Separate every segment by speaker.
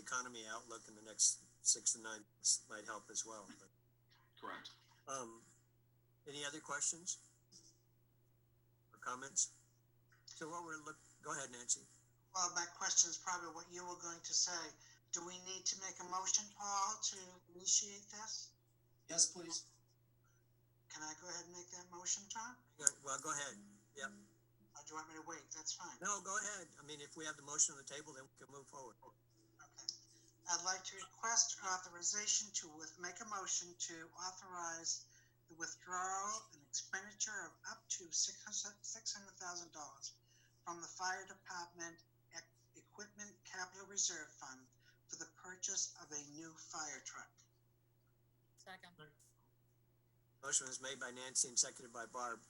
Speaker 1: economy outlook in the next six to nine months might help as well. But,
Speaker 2: Correct.
Speaker 1: um, any other questions or comments? So what we're look, go ahead, Nancy.
Speaker 3: Well, my question is probably what you were going to say. Do we need to make a motion, Paul, to initiate this?
Speaker 4: Yes, please.
Speaker 3: Can I go ahead and make that motion, Tom?
Speaker 1: Yeah, Well, go ahead.
Speaker 3: Or do you want me to wait? That's fine.
Speaker 1: No, go ahead. I mean, if we have the motion on the table, then we can move forward.
Speaker 3: Okay. I'd like to request authorization to with, make a motion to authorize the withdrawal and expenditure of up to six hundred, six hundred thousand dollars from the fire department ec- equipment capital reserve fund for the purchase of a new fire truck.
Speaker 5: Second.
Speaker 1: Motion was made by Nancy and seconded by Barb.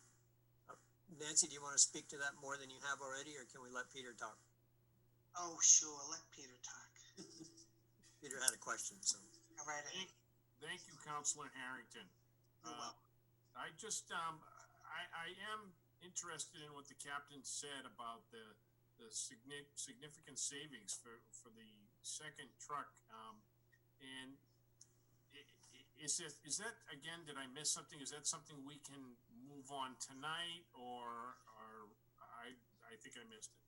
Speaker 1: Uh, Nancy, do you want to speak to that more than you have already, or can we let Peter talk?
Speaker 3: Oh, sure, let Peter talk.
Speaker 1: Peter had a question, so.
Speaker 3: All right, Ed,
Speaker 6: Thank you, Counselor Harrington.
Speaker 3: you're
Speaker 6: Uh,
Speaker 3: welcome.
Speaker 6: I just, um, I, I am interested in what the captain said about the, the signi- significant savings for, for the second truck. Um, and i- i- is it, is that, again, did I miss something? Is that something we can move on tonight or, or I, I think I missed it.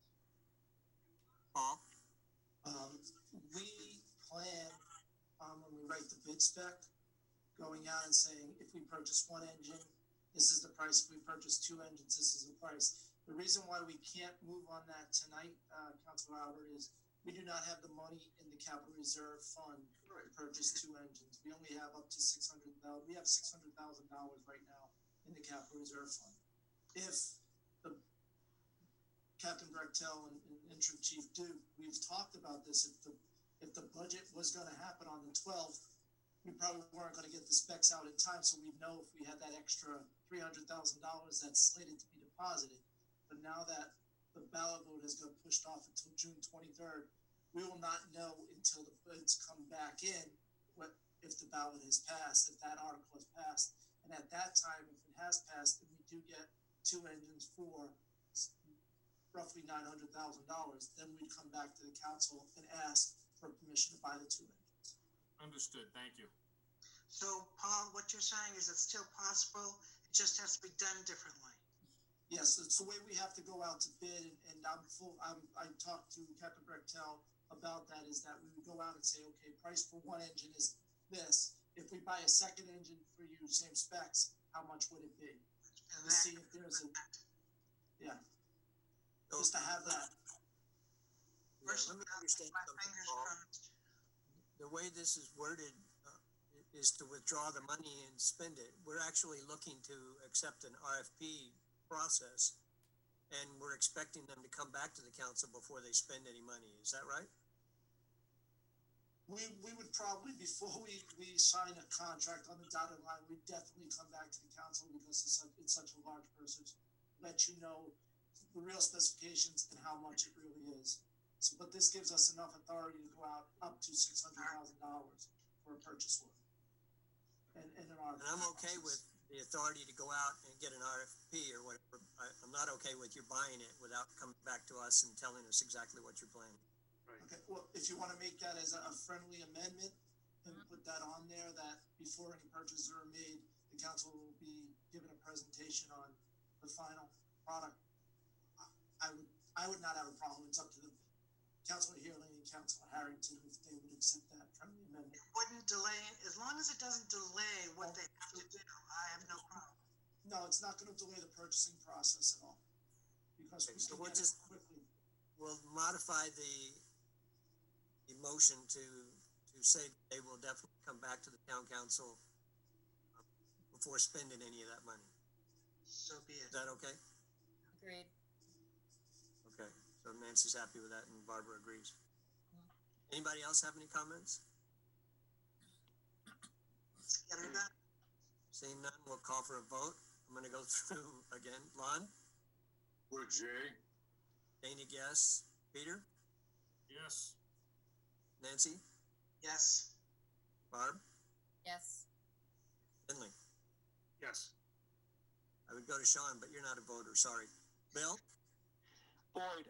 Speaker 1: Paul?
Speaker 4: Um, we plan, um, when we write the bid spec, going out and saying, if we purchase one engine, this is the price. If we purchase two engines, this is the price. The reason why we can't move on that tonight, uh, Council Albert, is we do not have the money in the capital reserve fund to purchase two engines. We only have up to six hundred thousand. we have six hundred thousand dollars right now in the capital reserve fund. If the Captain Brechtel and, and interim chief do, we've talked about this, if the, if the budget was gonna happen on the twelfth, we probably weren't gonna get the specs out in time, so we know if we had that extra three hundred thousand dollars that's slated to be deposited. But now that the ballot vote has got pushed off until June twenty-third, we will not know until the bids come back in, what, if the ballot has passed, if that article has passed. And at that time, if it has passed, then we do get two engines for s- roughly nine hundred thousand dollars, then we'd come back to the council and ask for permission to buy the two engines.
Speaker 6: Understood. Thank you.
Speaker 3: So, Paul, what you're saying is it's still possible, it just has to be done differently.
Speaker 4: Yes, it's the way we have to go out to bid, and- and I'm full, I'm, I talked to Captain Brechtel about that, is that we would go out and say, okay, price for one engine is this. If we buy a second engine for you, same specs, how much would it be?
Speaker 3: And
Speaker 4: To
Speaker 3: that,
Speaker 4: see if there's a, yeah, just to have that.
Speaker 1: Yeah, Oh, Let me understand
Speaker 3: my
Speaker 1: something,
Speaker 3: fingers
Speaker 1: Paul.
Speaker 3: crossed.
Speaker 1: The way this is worded uh, i- is to withdraw the money and spend it. We're actually looking to accept an RFP process. And we're expecting them to come back to the council before they spend any money. Is that right?
Speaker 4: We, we would probably, before we, we sign a contract on the dotted line, we'd definitely come back to the council because it's such, it's such a large purchase. Let you know the real specifications and how much it really is. So, but this gives us enough authority to go out up to six hundred thousand dollars for a purchase order. And, and an RFP.
Speaker 1: And I'm okay with the authority to go out and get an RFP or whatever. I, I'm not okay with you buying it without coming back to us and telling us exactly what you're planning.
Speaker 4: Okay, well, if you wanna make that as a a friendly amendment, then put that on there, that before any purchases are made, the council will be given a presentation on the final product. I- I would, I would not have a problem, it's up to the Councilor Healy and Councilor Harrington if they would accept that friendly amendment.
Speaker 3: Wouldn't delay, as long as it doesn't delay
Speaker 1: Oh,
Speaker 3: what they have to do, I have no problem.
Speaker 4: No, it's not gonna delay the purchasing process at all, because we
Speaker 1: Okay, so
Speaker 4: can
Speaker 1: we'll
Speaker 4: get it
Speaker 1: just-
Speaker 4: quickly.
Speaker 1: We'll modify the, the motion to, to say they will definitely come back to the town council um, before spending any of that money.
Speaker 3: So be
Speaker 1: Is
Speaker 3: it.
Speaker 1: that okay?
Speaker 5: Agreed.
Speaker 1: Okay, so Nancy's happy with that and Barbara agrees. Anybody else have any comments?
Speaker 3: Get it done.
Speaker 1: Seeing none, we'll call for a vote. I'm gonna go through again. Lon,
Speaker 2: Would Jay?
Speaker 1: Dana, yes. Peter,
Speaker 6: Yes.
Speaker 1: Nancy,
Speaker 3: Yes.
Speaker 1: Barb,
Speaker 5: Yes.
Speaker 1: Finley.
Speaker 2: Yes.
Speaker 1: I would go to Sean, but you're not a voter, sorry. Bill?
Speaker 7: Boyd,